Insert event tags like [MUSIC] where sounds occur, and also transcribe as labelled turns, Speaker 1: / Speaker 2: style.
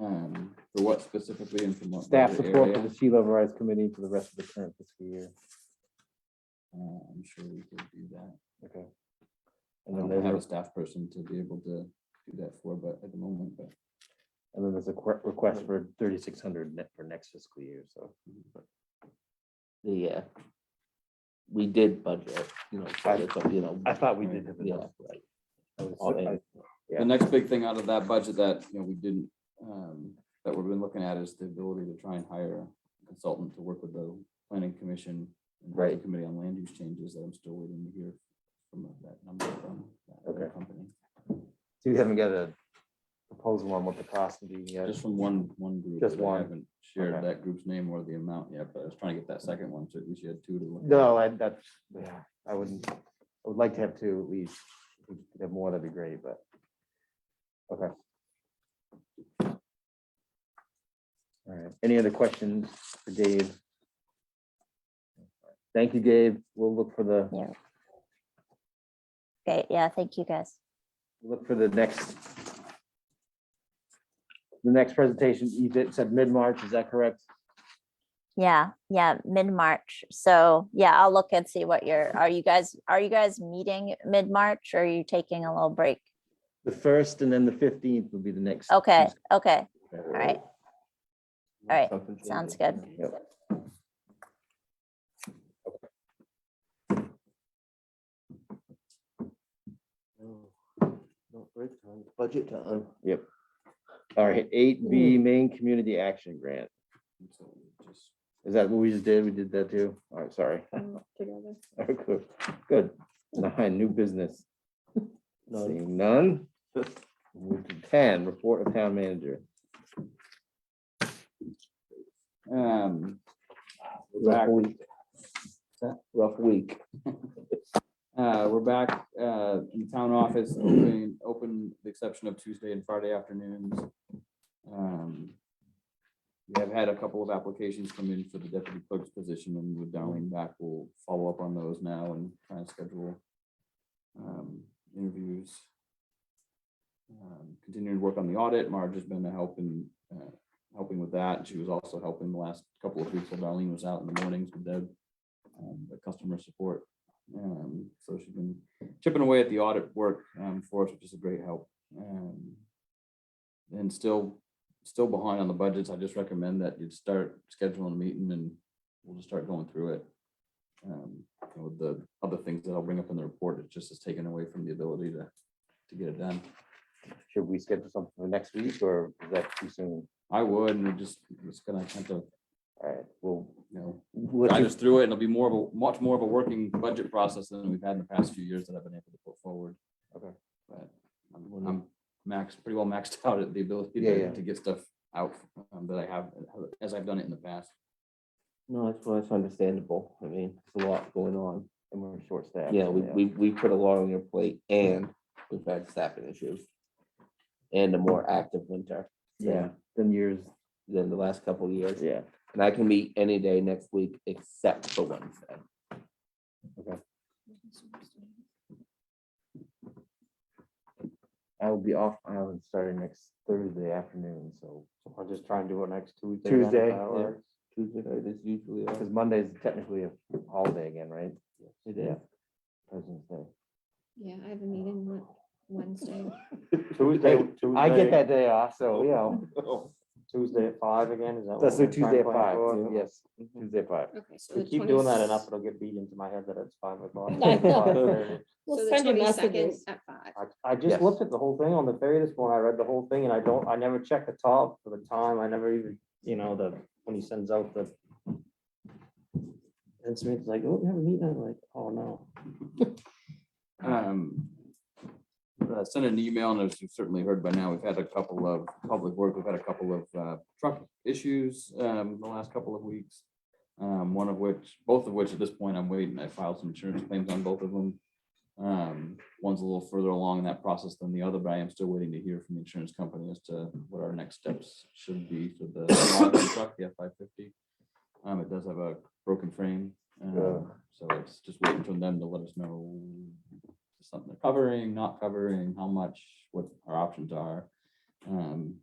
Speaker 1: Um, for what specifically and from what?
Speaker 2: Staff
Speaker 1: budget
Speaker 2: support for
Speaker 1: area?
Speaker 2: the Sea Level Rise Committee for the rest of the current fiscal year.
Speaker 1: Uh, I'm sure we could do that.
Speaker 2: Okay.
Speaker 1: I
Speaker 2: And then
Speaker 1: don't have a
Speaker 2: there's, a-
Speaker 1: staff person to be able to do that for, but at the moment, but
Speaker 2: and then there's a que- request for thirty-six hundred net for next fiscal year, so.
Speaker 3: the, uh, we did budget, you know, for this, but, you know.
Speaker 2: I thought we did have
Speaker 3: Yeah,
Speaker 2: enough.
Speaker 3: right.
Speaker 2: I was-
Speaker 3: All
Speaker 2: I-
Speaker 3: in.
Speaker 2: Yeah.
Speaker 1: the next big thing out of that budget that, you know, we didn't, um, that we've been looking at is the ability to try and hire a consultant to work with the planning commission. and the
Speaker 3: Right.
Speaker 1: Committee on land use changes that I'm still waiting to hear from that number from that other
Speaker 2: Okay.
Speaker 1: company.
Speaker 2: So you haven't got a proposal on what the cost would be yet?
Speaker 1: Just from one, one group.
Speaker 2: Just
Speaker 1: but I
Speaker 2: one.
Speaker 1: Haven't shared
Speaker 2: Okay.
Speaker 1: that group's name or the amount yet, but I was trying to get that second one, so at least you had two to look. at.
Speaker 2: No, I, that's, yeah, I wouldn't, I would like to have two at least. If we could Have more, that'd be great, but. Okay. All right, any other questions for Dave? Thank you, Dave. We'll look for the,
Speaker 4: Yeah. Okay, yeah, thank you guys.
Speaker 2: look for the next. The next presentation, you did, said mid-March, is that correct?
Speaker 4: Yeah, yeah, mid-March. So yeah, I'll look and see what your, are you guys, are you guys meeting mid-March or are you taking a little break?
Speaker 2: The first and then the fifteenth will be the next.
Speaker 4: Okay,
Speaker 2: Tuesday.
Speaker 4: okay, Oh, all right. All right,
Speaker 3: Something to
Speaker 4: sounds
Speaker 3: do.
Speaker 4: good.
Speaker 2: Yep.
Speaker 3: No, no break time, Budget time. Hmm.
Speaker 2: All right, eight B, main community action grant.
Speaker 1: So just-
Speaker 2: Is that what we just did? We did that too? All right, sorry. [LAUGHS] Okay, Good, good. Nine, new business.
Speaker 3: None.
Speaker 2: Seeing
Speaker 3: [LAUGHS]
Speaker 2: none. Move to Ten, report of town manager.
Speaker 1: Um, we're
Speaker 3: Rough
Speaker 1: back,
Speaker 3: week.
Speaker 1: That?
Speaker 3: Rough week.
Speaker 1: [LAUGHS] uh, we're back, uh, in town office, open, open the exception of Tuesday and Friday afternoons. Um, We have had a couple of applications come in for the deputy clerk's position and with Darlene back, we'll follow up on those now and try and schedule um, interviews. Um, Continuing to work on the audit. Marge has been a help in, uh, helping with that. She was also helping the last couple of weeks while Darlene was out in the mornings with Deb, um, the customer support. Um, So she's been chipping away at the audit work um, for us, which is a great help. Um, And still, still behind on the budgets. I just recommend that you'd start scheduling a meeting and we'll just start going through it. Um, you know, the other things that I'll bring up in the report, it just is taken away from the ability to, to get it done.
Speaker 2: Should we schedule something for next week or is that too soon?
Speaker 1: I would, and we're just, it's gonna attempt to,
Speaker 2: All right, well,
Speaker 1: you know,
Speaker 2: let's
Speaker 1: guide
Speaker 2: do-
Speaker 1: us through it, and it'll be more of a, much more of a working budget process than we've had in the past few years that I've been able to put forward.
Speaker 2: Okay.
Speaker 1: But I'm- I'm max, pretty well maxed [LAUGHS] out at the ability
Speaker 2: Yeah, yeah.
Speaker 1: to, to get stuff out um, that I have, as I've done it in the past.
Speaker 3: No, that's, well, that's understandable. I mean, it's a lot going on.
Speaker 2: and we're short staffed.
Speaker 3: Yeah, we, we, we put a lot on your plate and we've had staffing issues. And a more active winter
Speaker 2: Yeah, then years,
Speaker 3: than the last couple of years.
Speaker 2: yeah.
Speaker 3: And I can meet any day next week except for Wednesday.
Speaker 2: I will be off island starting next Thursday afternoon, so.
Speaker 5: I'll just try and do it next Tuesday. then, if
Speaker 2: Tuesday,
Speaker 5: that works.
Speaker 3: Tuesday night is usually off.
Speaker 2: because Monday is technically a holiday again, right?
Speaker 3: It is.
Speaker 2: President's Day.
Speaker 6: Yeah, I have a meeting on
Speaker 5: [LAUGHS]
Speaker 6: Wednesday.
Speaker 5: Tuesday,
Speaker 2: I
Speaker 5: Tuesday-
Speaker 2: get that day off, so, you know,
Speaker 5: Tuesday at five again, is that? what
Speaker 2: that's
Speaker 5: we're
Speaker 2: the
Speaker 5: trying
Speaker 2: Tuesday
Speaker 5: to
Speaker 2: at
Speaker 5: plan
Speaker 2: five,
Speaker 5: for?
Speaker 2: yes,
Speaker 5: Mm-hmm.
Speaker 2: Tuesday at five.
Speaker 6: Okay, so
Speaker 5: We
Speaker 6: the
Speaker 5: keep doing that enough, it'll get beat into my head that it's five
Speaker 6: [LAUGHS]
Speaker 5: o'clock.
Speaker 6: I know.
Speaker 5: 5:30.
Speaker 6: We'll send you messages. At five.
Speaker 5: [LAUGHS] I- I
Speaker 3: Yes.
Speaker 5: just looked at the whole thing on the ferry this morning, I read the whole thing, and I don't, I never checked the top for the time, I never even, you know, the, when he sends out the. And Smith's like, oh, we have a meeting, I'm like, oh, no.
Speaker 1: Um, uh, Sent an email, and as you've certainly heard by now, we've had a couple of public work, we've had a couple of uh, truck issues um, the last couple of weeks. um, One of which, both of which at this point, I'm waiting, I filed some insurance claims on both of them. Um, One's a little further along in that process than the other, but I am still waiting to hear from the insurance company as to what our next steps should be for the log truck, the F-550. Um, It does have a broken frame, um, so it's just waiting for them to let us know something they're covering, not covering, how much, what our options are. Um,